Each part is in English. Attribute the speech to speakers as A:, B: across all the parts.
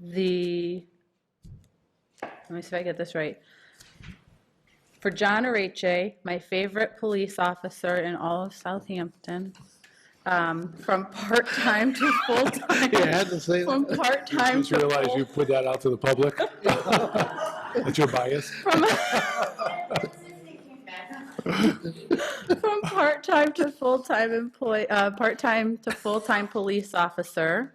A: the, let me see if I get this right. For John Arache, my favorite police officer in all of Southampton, um, from part-time to full-time.
B: Yeah, I had to say that.
A: From part-time
B: Just
A: to
B: realize
A: full.
B: you put that out to the public. That's your bias.
A: From from part-time to full-time employee, uh, part-time to full-time police officer,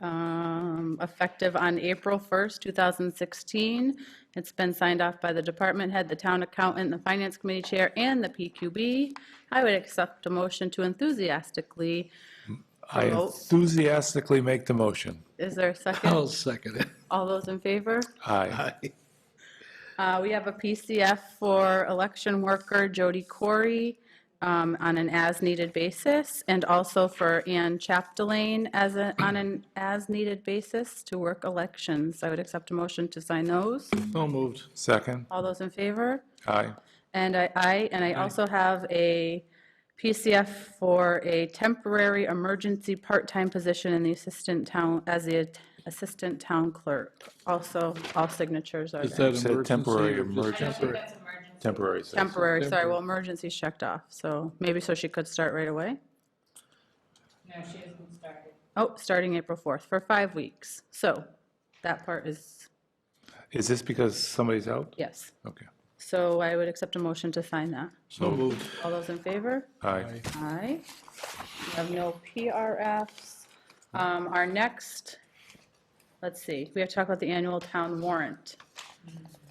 A: um, effective on April 1st, 2016. It's been signed off by the department head, the town accountant, the finance committee chair, and the PQB. I would accept a motion to enthusiastically,
B: I
A: Promote.
B: enthusiastically make the motion.
A: is there a
C: I'll
A: second?
C: second it.
A: All those in favor?
B: Aye.
A: Uh, We have a PCF for election worker Jody Corey um, on an as-needed basis, and also for Ann Chapdelaine as a, on an as-needed basis to work elections. I would accept a motion to sign those.
C: So moved.
B: Second?
A: All those in favor?
B: Aye.
A: And I, I, and I also have a PCF for a temporary emergency part-time position in the assistant town, as the assistant town clerk. Also, all signatures are
C: Is
A: there.
C: that
B: Said
C: emergency?
B: temporary
C: or just
B: emergency.
C: temporary?
B: Temporary. so-
A: Temporary, sorry, well, emergency's checked off, so maybe so she could start right away?
D: No, she hasn't started.
A: Oh, starting April 4th, for five weeks. So that part is,
B: Is this because somebody's out?
A: yes.
B: Okay.
A: So I would accept a motion to sign that.
C: So moved.
A: All those in favor?
B: Aye.
A: Aye. We have no PRFs. Um, Our next, let's see, we have to talk about the annual town warrant.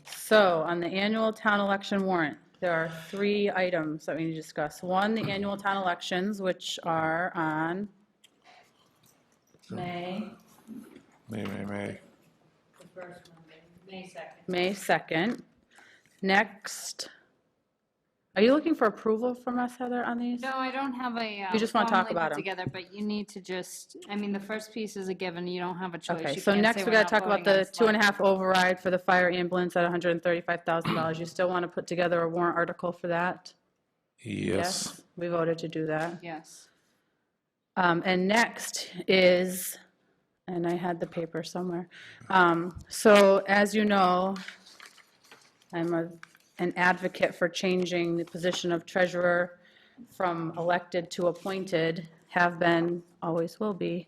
A: So on the annual town election warrant, there are three items that we need to discuss. One, the annual town elections, which are on
D: May,
B: May, may, may.
D: the first Monday, May 2nd.
A: May 2nd. Next, are you looking for approval from us, Heather, on these?
D: No, I don't have a. uh,
A: You just wanna talk
D: formally put
A: about 'em.
D: Together, but you need to just, I mean, the first piece is a given, you don't have a choice.
A: Okay,
D: You
A: so
D: can't
A: next
D: say
A: we
D: we're
A: gotta
D: not
A: talk about
D: voting on
A: the two and a half override for the fire ambulance at $135,000. You still want to put together a warrant article for that?
B: Yes.
A: We voted to do that.
D: select- Yes.
A: Um, And next is, and I had the paper somewhere. Um, So as you know, I'm a- an advocate for changing the position of treasurer from elected to appointed, have been, always will be.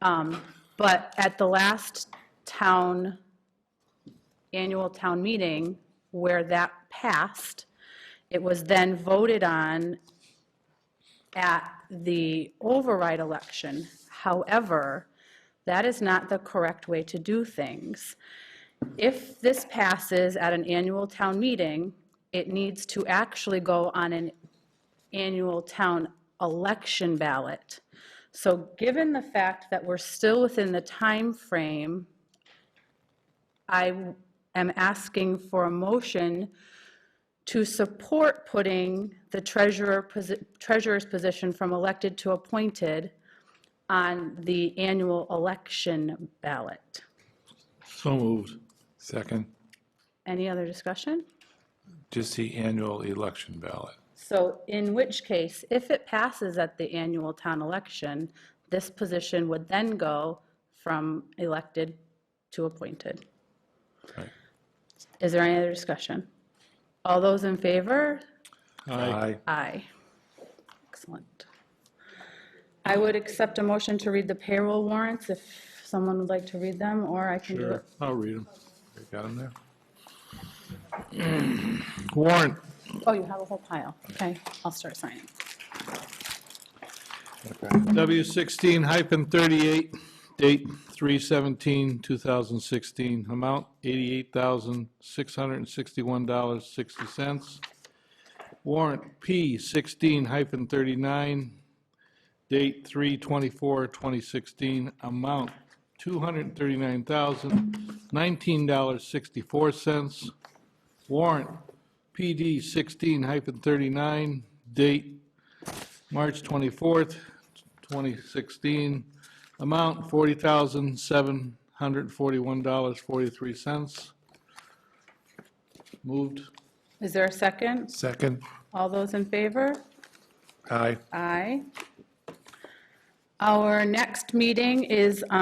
A: Um, But at the last town, annual town meeting, where that passed, it was then voted on at the override election. However, that is not the correct way to do things. If this passes at an annual town meeting, it needs to actually go on an annual town election ballot. So given the fact that we're still within the time frame, I am asking for a motion to support putting the treasurer, posi- treasurer's position from elected to appointed on the annual election ballot.
C: So moved.
B: Second?
A: Any other discussion?
B: Just the annual election ballot.
A: So in which case, if it passes at the annual town election, this position would then go from elected to appointed.
B: Right.
A: Is there any other discussion? All those in favor,
B: Aye.
A: Aye. Excellent. I would accept a motion to read the payroll warrants if someone would like to read them, or I can do it.
C: Sure, I'll read them.
B: You Got him there?
C: Warrant
A: Oh, you have a whole pile. Okay, I'll start signing.
C: W sixteen hyphen thirty-eight, date 2016. amount eighty-eight thousand, six hundred and sixty-one dollars, sixty cents. Warrant P sixteen hyphen thirty-nine, date 2016. amount two hundred and thirty-nine thousand, nineteen dollars, sixty-four cents. Warrant PD sixteen hyphen thirty-nine, date March 24th, 2016, amount $40,741.43. Moved.
A: Is there a second?
B: Second?
A: All those in favor?
B: Aye.
A: Aye. Our next meeting is